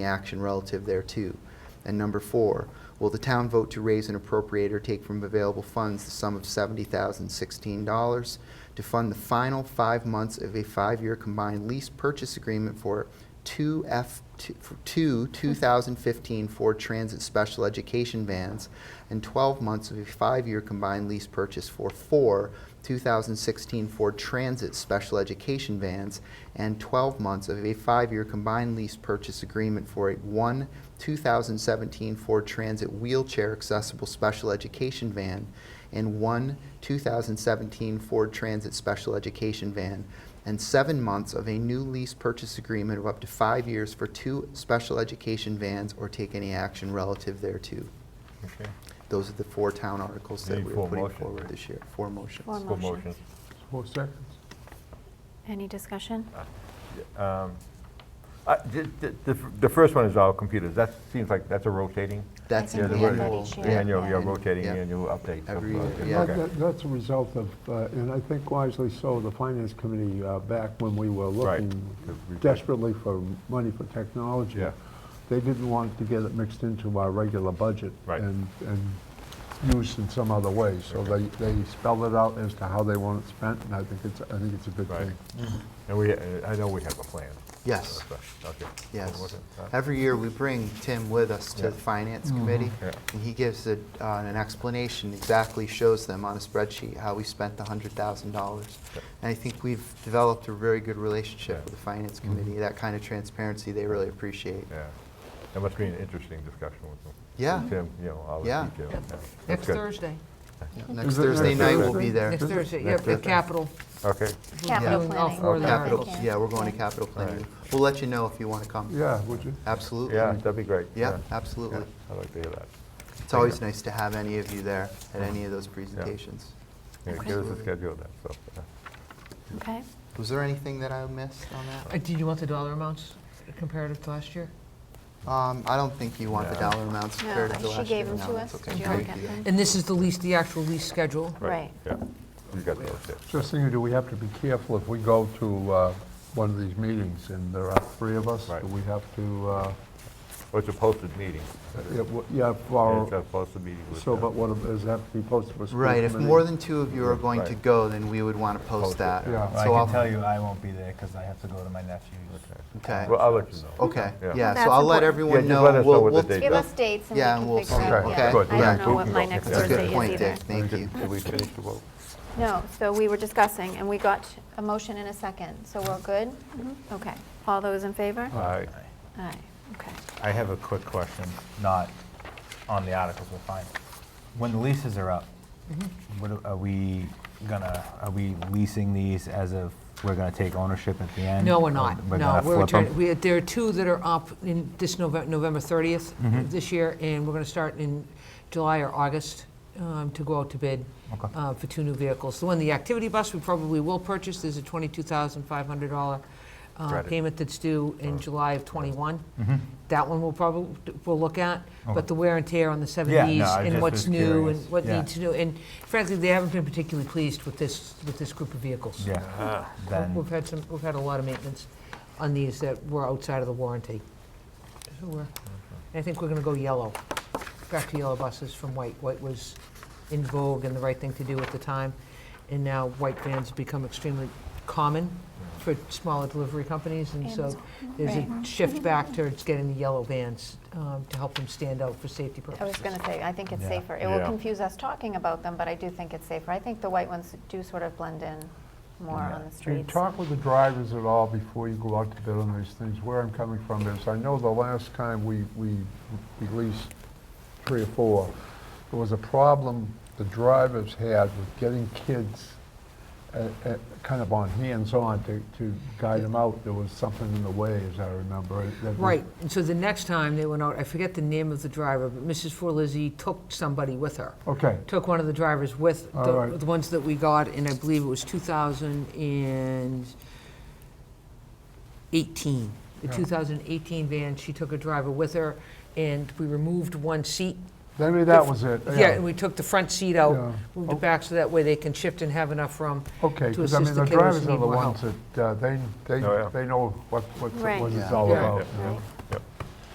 action relative thereto. And number four, will the town vote to raise and appropriate or take from available funds the sum of $70,016 to fund the final five months of a five-year combined lease purchase agreement for two F, two- for two 2015 Ford Transit Special Education vans and 12 months of a five-year combined lease purchase for four 2016 Ford Transit Special Education vans and 12 months of a five-year combined lease purchase agreement for a one 2017 Ford Transit wheelchair accessible special education van and one 2017 Ford Transit special education van and seven months of a new lease purchase agreement of up to five years for two special education vans or take any action relative thereto. Okay, Those are the four town articles that Need we're full putting motion. forward this year. Four motions. Four full motion. Motions. Four seconds. Any discussion? Um, I- The the- the f- the first one is all computers, that seems like, that's a rotating? That's think Yeah, in the the we had annual. that each year. yeah, Annual, you're and- rotating yeah. annual updates. of, Every uh, year, yeah. That- okay. that- That's a result of, uh, and I think wisely so, the Finance Committee, uh, back when we were Right. looking To re- desperately for money for technology. Yeah. They didn't want to get it mixed into our regular budget. Right. And, and used in some other way. So they, they spelled it out as to how they want it spent, and I think it's, I think it's a good Right. thing. And we, uh, I know we have a plan. Uh, Yes. Okay. What was Yes. it? Uh, Every year, we bring Tim with us to Yeah. the Finance Mm-hmm. Committee, Yeah. and he gives a- uh, an explanation, exactly shows them on a spreadsheet how we spent the $100,000. Yeah. And I think we've developed a very good relationship Yeah. with the Finance Mm-hmm. Committee, that kind of transparency they really appreciate. Yeah, that must be an interesting discussion with them. Yeah. With Tim, you know, all the Yeah. details. yeah. That's Next good. Thursday. Next Is it Thursday next night, we'll Thursday? be there. Next Thursday, yeah, Next the Thursday. capital. Okay, Capital Yeah. planning. All four there. Capital, Thank you. yeah, we're going to capital planning. Alright. We'll let you know if you want to come. Yeah, would you? Absolutely. yeah, that'd be great. Yeah, Yeah, absolutely. I'd like to hear that. It's always nice to have any of you there at any of those presentations. Yeah, Okay. Give us a schedule then, so. uh, Okay. Was there anything that I missed on that? Uh, Did you want the dollar amounts comparative to last year? Um, I don't think you want the No. dollar amounts No, compared to she the last gave year. them No, to that's us. okay. Did you We all can get do them? that. And this is the lease, the actual lease schedule? Right. Yeah, you got those, yeah. Just thinking, do we have to be careful if we go to uh, one of these meetings and there are three of us? Right. Do we have to, uh, Well, it's a posted meeting. it w- yeah, Yeah, It's for, a posted meeting with. uh, so, but what, does that have to be posted for school Right, if committee? more than two of you are going to Right. go, then we would want to post it, that. yeah. Well, Well, So I I'll- can tell you I won't be there because I have to go to my nephew's. Okay, Well, I'll let you know. okay, Yeah. yeah, That's so I'll let important. Yeah, everyone just know. let us know We'll- what the we'll- date Give Yeah. us dates and we Yeah, and can we'll figure see. out, Okay, yeah. good. I Yeah, don't know good. what my That's next a good Thursday is point, either. Dick. Thank you. Did we finish the vote? No, so we were discussing, and we got a motion in a second, so we're good? Okay. All those in favor? Aye. Uh, Aye, okay. I have a quick question, not on the articles, we're fine. When the leases are up, what are- are we gonna, are we leasing these as if we're gonna take ownership at the end? No, we're Or not. um, We're No, gonna we're flip 'em? returning, we, there are two that are up in this November, November 30th this year, and we're gonna start in July or August um, to go out to bid Okay. uh, for two new vehicles. The one, the activity bus, we probably will purchase, there's a $22,500 uh, Credit. payment that's due in July of '21. That one we'll probably, we'll look at, Mm-hmm. Okay. but the wear and tear on the Yeah, no, 70s I and just what's was new and curious. what Yeah. needs to do. And frankly, they haven't been particularly pleased with this, with this group of vehicles. Yeah, We've then, had some, we've had a lot of maintenance on these that were outside of the warranty. So we're, Uh-huh. I think we're gonna go yellow, back to yellow buses from white. White was in vogue and the right thing to do at the time, and now white vans have become extremely common for smaller delivery companies, and so there's a shift back towards getting the yellow vans um, to help them stand out for safety I was purposes. going to say, I think it's Yeah. safer. It will Yeah. confuse us talking about them, but I do think it's safer. I think the white ones do sort of blend in more Yeah. on the Do you streets. talk with the drivers at all before you go out to bid on these things? Where I'm coming from is, I know the last time we, we released three or four, there was a problem the drivers had with getting kids uh, uh, kind of on hands-on to, to guide them out. There was something in the way, as I remember. it, that was- Right, and so the next time they went out, I forget the name of the driver, but Mrs. Forlizzi took somebody with her. Okay, took one of the drivers with All the right. the ones that we got, and I believe it was 2018. The Yeah. 2018 van, she took a driver with her, and we removed one seat. maybe that was it. Yeah, and we took the front seat out, Yeah. moved it back, so that way they can shift and have enough room. Okay, to because I mean, assist the the kiddos who drivers need are the more ones that, uh, they, they, Oh, yeah. they know what, what Right. what it's Yeah. all Yeah. about. Right.